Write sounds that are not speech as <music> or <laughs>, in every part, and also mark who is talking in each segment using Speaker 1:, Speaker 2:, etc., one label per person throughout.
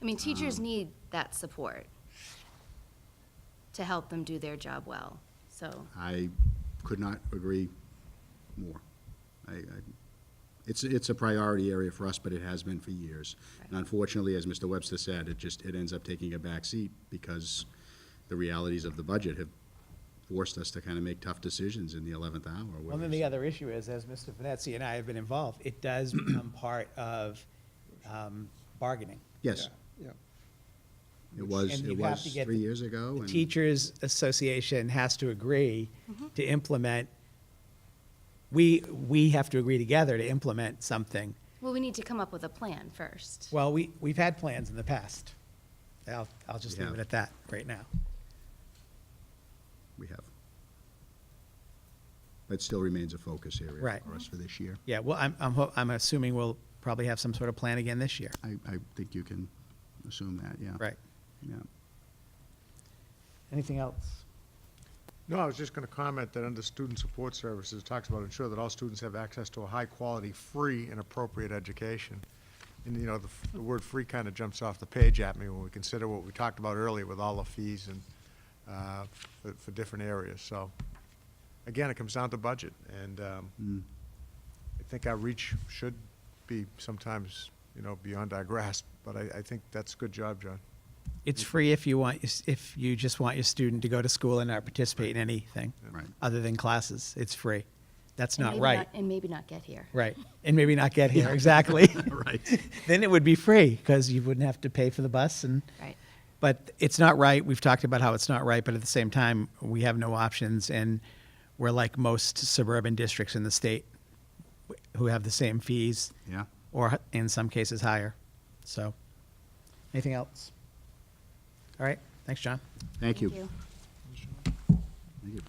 Speaker 1: I mean, teachers need that support to help them do their job well, so.
Speaker 2: I could not agree more. I, I, it's, it's a priority area for us, but it has been for years. And
Speaker 1: Right.
Speaker 2: unfortunately, as Mr. Webster said, it just, it ends up taking a backseat because the realities of the budget have forced us to kind of make tough decisions in the eleventh hour.
Speaker 3: Well,
Speaker 2: whether
Speaker 3: then the
Speaker 2: it's-
Speaker 3: other issue is, as Mr. Venezia and I have been involved, it does become part of um, bargaining.
Speaker 2: Yes,
Speaker 4: Yeah,
Speaker 2: it was,
Speaker 3: And
Speaker 2: it
Speaker 3: you have
Speaker 2: was
Speaker 3: to get
Speaker 2: three
Speaker 3: the-
Speaker 2: years ago.
Speaker 3: The
Speaker 2: Oh, and-
Speaker 3: Teachers Association has to agree to implement, we, we have to agree together to implement something.
Speaker 1: Well, we need to come up with a plan first.
Speaker 3: Well, we, we've had plans in the past. I'll, I'll just
Speaker 2: We
Speaker 3: leave it
Speaker 2: have.
Speaker 3: at that right now.
Speaker 2: We have. But it still remains a focus area
Speaker 3: Right.
Speaker 2: for us for this year.
Speaker 3: Yeah, well, I'm, I'm, ho- I'm assuming we'll probably have some sort of plan again this year.
Speaker 2: I, I think you can assume that, yeah.
Speaker 3: Right.
Speaker 2: Yeah.
Speaker 3: Anything else?
Speaker 4: no, I was just going to comment that under Student Support Services, it talks about ensure that all students have access to a high-quality, free, and appropriate education. And, you know, the f- the word "free" kind of jumps off the page at me when we consider what we talked about earlier with all the fees and, uh, for- for different areas, so. Again, it comes down to budget, and um, I think our reach should be sometimes, you know, beyond our <laughs> grasp, but I, I think that's a good job, John.
Speaker 3: It's free if you want, if you just want your student to go to school and not participate in anything.
Speaker 2: Right.
Speaker 3: Other than classes, it's free. That's
Speaker 1: And
Speaker 3: not
Speaker 1: maybe
Speaker 3: right.
Speaker 1: And maybe not get here.
Speaker 3: Right. And maybe not
Speaker 2: <laughs>
Speaker 3: get here, exactly.
Speaker 2: Right.
Speaker 3: <laughs> Then it would be free because you wouldn't have to pay for the bus and.
Speaker 1: Right.
Speaker 3: But it's not right. We've talked about how it's not right, but at the same time, we have no options and we're like most suburban districts in the state who have the same fees.
Speaker 2: Yeah.
Speaker 3: Or in some cases higher. So, anything else? All right. Thanks, John.
Speaker 2: Thank you. Thank you.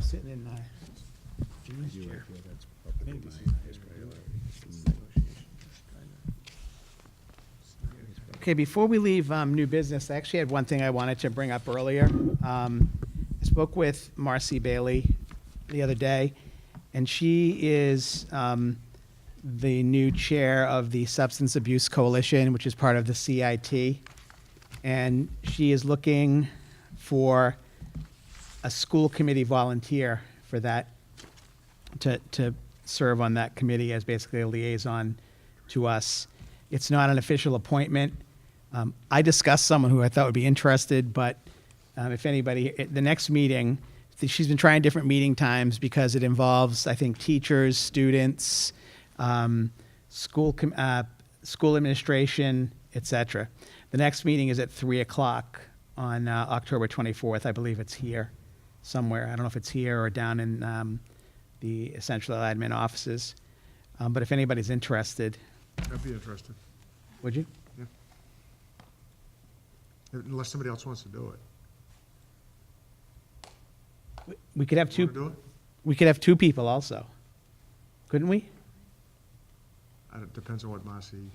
Speaker 3: Sitting in my Julie's
Speaker 2: You
Speaker 3: chair.
Speaker 2: right there, that's probably my highest priority.
Speaker 3: Okay, before we leave um, new business, I actually had one thing I wanted to bring up earlier. Um, I spoke with Marcy Bailey the other day, and she is um, the new chair of the Substance Abuse Coalition, which is part of the CIT. And she is looking for a school committee volunteer for that, to, to serve on that committee as basically a liaison to us. It's not an official appointment. Um, I discussed someone who I thought would be interested, but um, if anybody, at the next meeting, th- she's been trying different meeting times because it involves, I think, teachers, students, um, school, com- uh, school administration, et cetera. The next meeting is at 3 o'clock on uh, October 24th. I believe it's here somewhere. I don't know if it's here or down in um, the essential admin offices. Um, But if anybody's interested,
Speaker 4: That'd be interesting.
Speaker 3: would you?
Speaker 4: Yeah. Unless somebody else wants to do it.
Speaker 3: We- We could have
Speaker 4: Want to do
Speaker 3: two,
Speaker 4: it?
Speaker 3: we could have two people also, couldn't we?
Speaker 4: I don't- Depends on what Marcy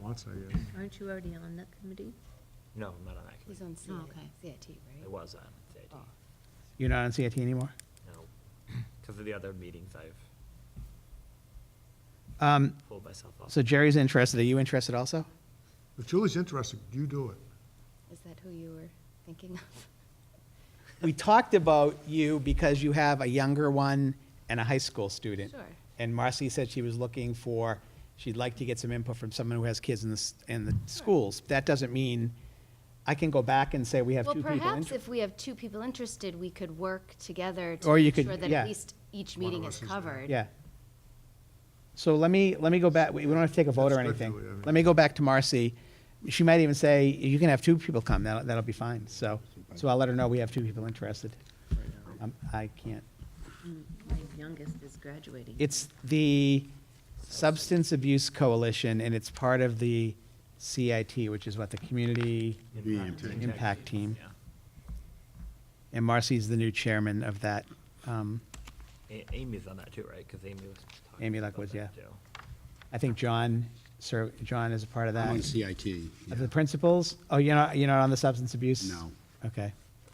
Speaker 4: wants, I guess.
Speaker 5: Aren't you already on that committee?
Speaker 6: No, I'm not on that
Speaker 1: He's
Speaker 6: committee.
Speaker 1: on Oh. CIT,
Speaker 5: Oh, okay.
Speaker 1: CIT,
Speaker 6: I
Speaker 1: right?
Speaker 6: was on CIT,
Speaker 3: You're not on CIT anymore?
Speaker 6: no, because of the other meetings I've
Speaker 3: Um,
Speaker 6: pulled myself off.
Speaker 3: So Jerry's interested. Are you interested also?
Speaker 4: If Julie's interested, you do it.
Speaker 1: Is that who you were thinking of?
Speaker 3: We talked about you because you have a younger one and a high school student.
Speaker 1: Sure.
Speaker 3: And Marcy said she was looking for, she'd like to get some input from someone who has kids in the, s- in the schools. That doesn't mean, I can go back and say we have two
Speaker 1: <laughs> Well,
Speaker 3: people interested.
Speaker 1: perhaps if we have two people interested, we could work together to
Speaker 3: Or you
Speaker 1: make
Speaker 3: could-
Speaker 1: sure that
Speaker 3: yeah.
Speaker 1: at least each
Speaker 4: One of
Speaker 1: meeting
Speaker 4: us
Speaker 1: is
Speaker 4: is there.
Speaker 1: covered.
Speaker 3: Yeah. So let me, let me go back, we we don't have to take a vote or
Speaker 4: That's good,
Speaker 3: anything.
Speaker 4: Julie, I mean-
Speaker 3: Let me go back to Marcy. She might even say, you can have two people come, that'll, that'll be fine. So, so I'll let her know we have two people interested. Um, I can't.
Speaker 5: My youngest is graduating.
Speaker 3: It's the Substance Abuse Coalition, and it's part of the CIT, which is what, the Community
Speaker 2: BMT.
Speaker 3: Impact Team.
Speaker 6: Yeah.
Speaker 3: And Marcy's the new chairman of that. um,
Speaker 6: A- Amy's on that too, right? Because Amy was talking
Speaker 3: Amy
Speaker 6: about
Speaker 3: Lockwood,
Speaker 6: that,
Speaker 3: yeah.
Speaker 6: too.
Speaker 3: I think John, Sir, John is a part of that.
Speaker 2: I'm on CIT. yeah.
Speaker 3: Of the principals? Oh, you're not, you're not on the substance abuse?
Speaker 2: No.
Speaker 3: Okay.